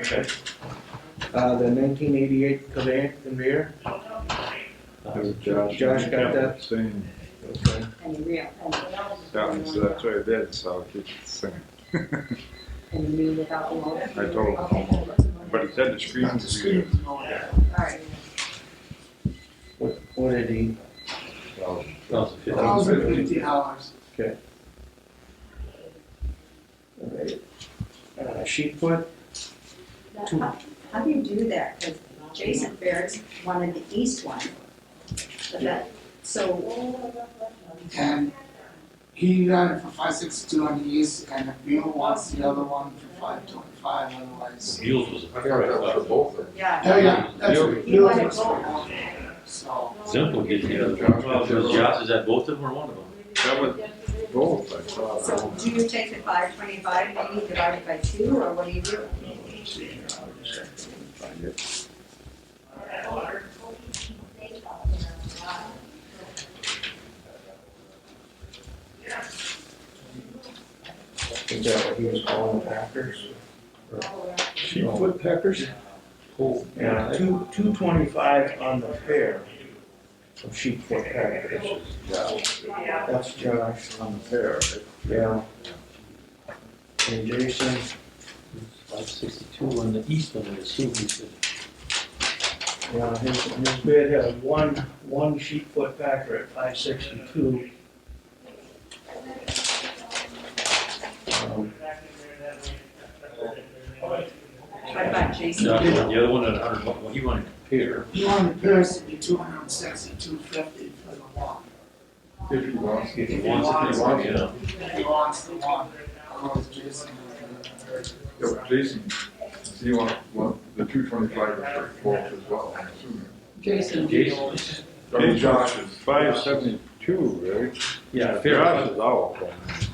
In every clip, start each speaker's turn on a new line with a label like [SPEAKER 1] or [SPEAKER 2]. [SPEAKER 1] Okay.
[SPEAKER 2] Uh, the nineteen eighty-eight conveyor, conveyor,
[SPEAKER 3] Josh.
[SPEAKER 2] Josh got that?
[SPEAKER 3] Same.
[SPEAKER 2] okay.
[SPEAKER 4] And the real, and
[SPEAKER 3] That one's, that's what I did, so I'll keep it the same.
[SPEAKER 4] And the new without the mold.
[SPEAKER 3] I told him,
[SPEAKER 4] Okay.
[SPEAKER 3] but he said the screen's good.
[SPEAKER 4] Alright.
[SPEAKER 2] What, what did he,
[SPEAKER 1] Thousand fifty.
[SPEAKER 5] Thousand fifty dollars.
[SPEAKER 2] uh, sheet foot? Two.
[SPEAKER 4] How how do you do that? Because Jason Ferris wanted the east one. But that, so.
[SPEAKER 5] And he got it for five sixty-two on the east, and the Bill wants the other one for five twenty-five, otherwise.
[SPEAKER 1] Mules was a
[SPEAKER 6] I got
[SPEAKER 1] price
[SPEAKER 6] that for
[SPEAKER 1] up.
[SPEAKER 6] both of them.
[SPEAKER 4] Yeah.
[SPEAKER 5] Oh, yeah, that's
[SPEAKER 3] Bill-
[SPEAKER 5] what
[SPEAKER 4] He
[SPEAKER 5] Bill
[SPEAKER 4] wanted
[SPEAKER 5] was
[SPEAKER 4] both.
[SPEAKER 5] So,
[SPEAKER 1] Zimple gets the other
[SPEAKER 6] Josh.
[SPEAKER 1] one. Josh is at both of them or one of them?
[SPEAKER 3] That was both, I thought. I
[SPEAKER 4] So
[SPEAKER 3] don't
[SPEAKER 4] do you take the five twenty-five, maybe divide it by two, or what do you do?
[SPEAKER 3] know. Let's see here. I'll just have to find it.
[SPEAKER 2] Is that what he was calling the Packers?
[SPEAKER 3] She put peppers? Cool.
[SPEAKER 2] Yeah, two, two twenty-five on the pair of sheet foot Packers. That's Josh.
[SPEAKER 3] On the fair, right?
[SPEAKER 2] Yeah. And Jason,
[SPEAKER 1] Five sixty-two on the east one, I assume he said.
[SPEAKER 2] yeah, his, his bid has one, one sheet foot Packer at five sixty-two. Um,
[SPEAKER 4] What about Jason?
[SPEAKER 1] Josh wanted the other one at a hundred, bucks. well, he wanted a pair.
[SPEAKER 5] he wanted Paris to be two hundred and sixty-two fifty for the one.
[SPEAKER 3] If he wants.
[SPEAKER 1] If he
[SPEAKER 5] If he
[SPEAKER 1] wants
[SPEAKER 5] wants
[SPEAKER 1] it,
[SPEAKER 5] it.
[SPEAKER 1] then
[SPEAKER 5] He
[SPEAKER 1] he wants
[SPEAKER 5] wants the one, otherwise Jason was gonna.
[SPEAKER 6] Yeah, but Jason, so you want, want the two twenty-five for both as well, I'm assuming.
[SPEAKER 1] it.
[SPEAKER 5] Jason.
[SPEAKER 1] Jason,
[SPEAKER 3] Big Josh is five seventy-two, right?
[SPEAKER 1] yeah, fair.
[SPEAKER 3] Josh is out.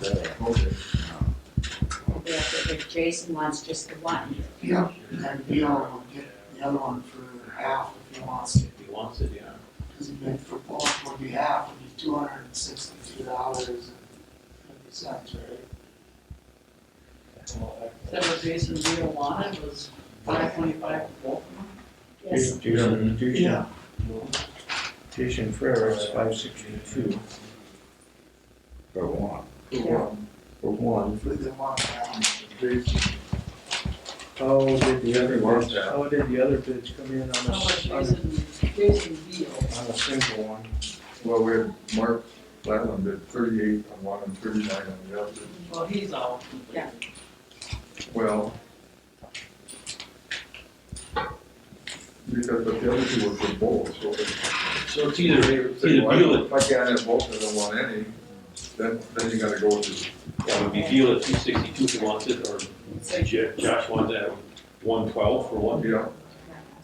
[SPEAKER 3] Yeah.
[SPEAKER 6] Okay.
[SPEAKER 4] If Jason wants just the one.
[SPEAKER 5] Yeah, and Bill will get the other one for half if he wants it.
[SPEAKER 1] He wants it, yeah.
[SPEAKER 5] Because it meant for both would be half, would be two hundred and sixty-two dollars and fifty cents, right?
[SPEAKER 7] That what Jason Vito wanted was five twenty-five for
[SPEAKER 4] Yes.
[SPEAKER 2] Jason, Jason, Jason Ferris, five sixty-two
[SPEAKER 3] But one.
[SPEAKER 2] for one, for one.
[SPEAKER 5] Hopefully they want that.
[SPEAKER 3] Jason,
[SPEAKER 2] How did the other
[SPEAKER 3] Where's
[SPEAKER 2] bids,
[SPEAKER 3] that?
[SPEAKER 2] how did the other bids come in on
[SPEAKER 7] both. How
[SPEAKER 2] a,
[SPEAKER 7] much
[SPEAKER 2] on
[SPEAKER 7] Jason, Jason Vito,
[SPEAKER 2] a, on a single one?
[SPEAKER 6] Well, we had Mark Latland did thirty-eight on one and thirty-nine on the other.
[SPEAKER 7] well, he's out.
[SPEAKER 4] Yeah.
[SPEAKER 6] Well. Because but the other two were for both, so. if-
[SPEAKER 1] So it's either, it's
[SPEAKER 6] say,
[SPEAKER 1] either
[SPEAKER 6] why-
[SPEAKER 1] Beal
[SPEAKER 6] If I can't have both of them on any, then, then you gotta go with
[SPEAKER 1] at, it would be Beal at two sixty-two if he wants it, or Jo- Josh wants it at one twelve for
[SPEAKER 6] the,
[SPEAKER 1] one.
[SPEAKER 6] yeah.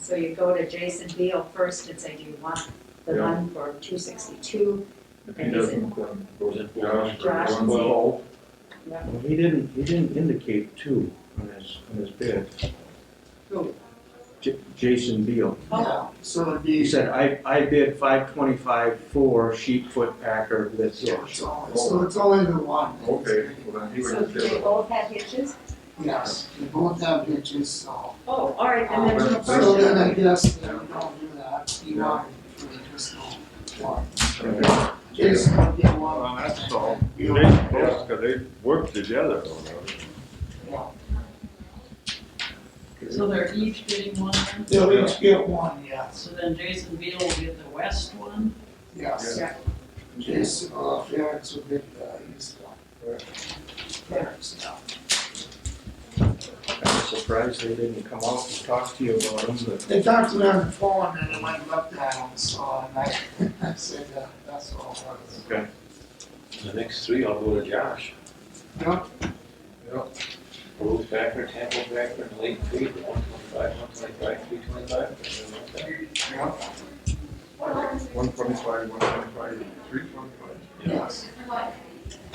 [SPEAKER 4] So you go to Jason Beal first and say, do you want the
[SPEAKER 6] Yeah.
[SPEAKER 4] one for two sixty-two?
[SPEAKER 6] If he doesn't, then go
[SPEAKER 1] Is
[SPEAKER 6] to
[SPEAKER 1] it
[SPEAKER 6] Josh for
[SPEAKER 4] Josh?
[SPEAKER 6] one twelve.
[SPEAKER 2] Well, he didn't, he didn't indicate two on his, on his bid.
[SPEAKER 7] Who?
[SPEAKER 2] J- Jason Beal.
[SPEAKER 4] Oh,
[SPEAKER 7] Oh.
[SPEAKER 5] Yeah, so it'd
[SPEAKER 2] He
[SPEAKER 5] be, so
[SPEAKER 2] said, I, I bid five twenty-five for sheep foot packer, that's it.
[SPEAKER 5] it's only, so it's only the one.
[SPEAKER 6] Okay, well then he would
[SPEAKER 4] So
[SPEAKER 6] just
[SPEAKER 4] do
[SPEAKER 6] give
[SPEAKER 4] they
[SPEAKER 6] it.
[SPEAKER 4] both have hitches?
[SPEAKER 5] Yes, they both have hitches, so.
[SPEAKER 4] Oh, all right, and then
[SPEAKER 6] Uh,
[SPEAKER 4] the
[SPEAKER 6] but-
[SPEAKER 5] So then
[SPEAKER 4] first,
[SPEAKER 5] I guess they don't do that, you want it for the personal one. Jason would get one.
[SPEAKER 3] Well, that's all. They,
[SPEAKER 5] Bill-
[SPEAKER 3] both- 'cause they work together.
[SPEAKER 5] Yeah.
[SPEAKER 7] So they're each getting one then?
[SPEAKER 5] They'll each get one, yes,
[SPEAKER 7] So then Jason Vito will get the west one,
[SPEAKER 5] yes.
[SPEAKER 4] Yeah.
[SPEAKER 5] Jason, uh, Ferris would get the east one. Ferris, yeah.
[SPEAKER 2] I'm surprised they didn't come out and talk to you about them, but
[SPEAKER 5] They talked to me on the phone and they went and looked at them, so, and I, I said, uh, that's all it was.
[SPEAKER 1] The next three, I'll go to Josh.
[SPEAKER 5] Yeah,
[SPEAKER 1] Rose Packer, Temple Packer, and Lake Creek, one twenty-five, one twenty-five, three twenty-five.
[SPEAKER 5] yeah,
[SPEAKER 6] One twenty-five, one twenty-five, three twenty-five.
[SPEAKER 5] yes.